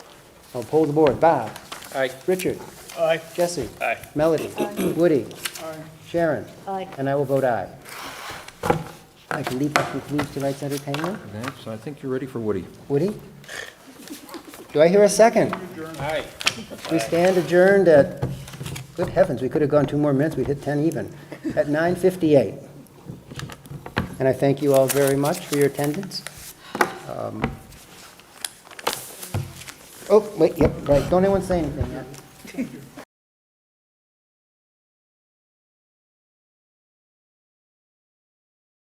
I'll poll the board. Bob? Aye. Richard? Aye. Jesse? Aye. Melody? Woody? Sharon? Aye. And I will vote aye. I believe that concludes tonight's entertainment. Okay, so I think you're ready for Woody. Woody? Do I hear a second? Aye. We stand adjourned at, good heavens, we could have gone two more minutes, we'd hit 10 even, at 9:58. And I thank you all very much for your attendance. Um, Oh, wait, yep, right, don't anyone say anything yet.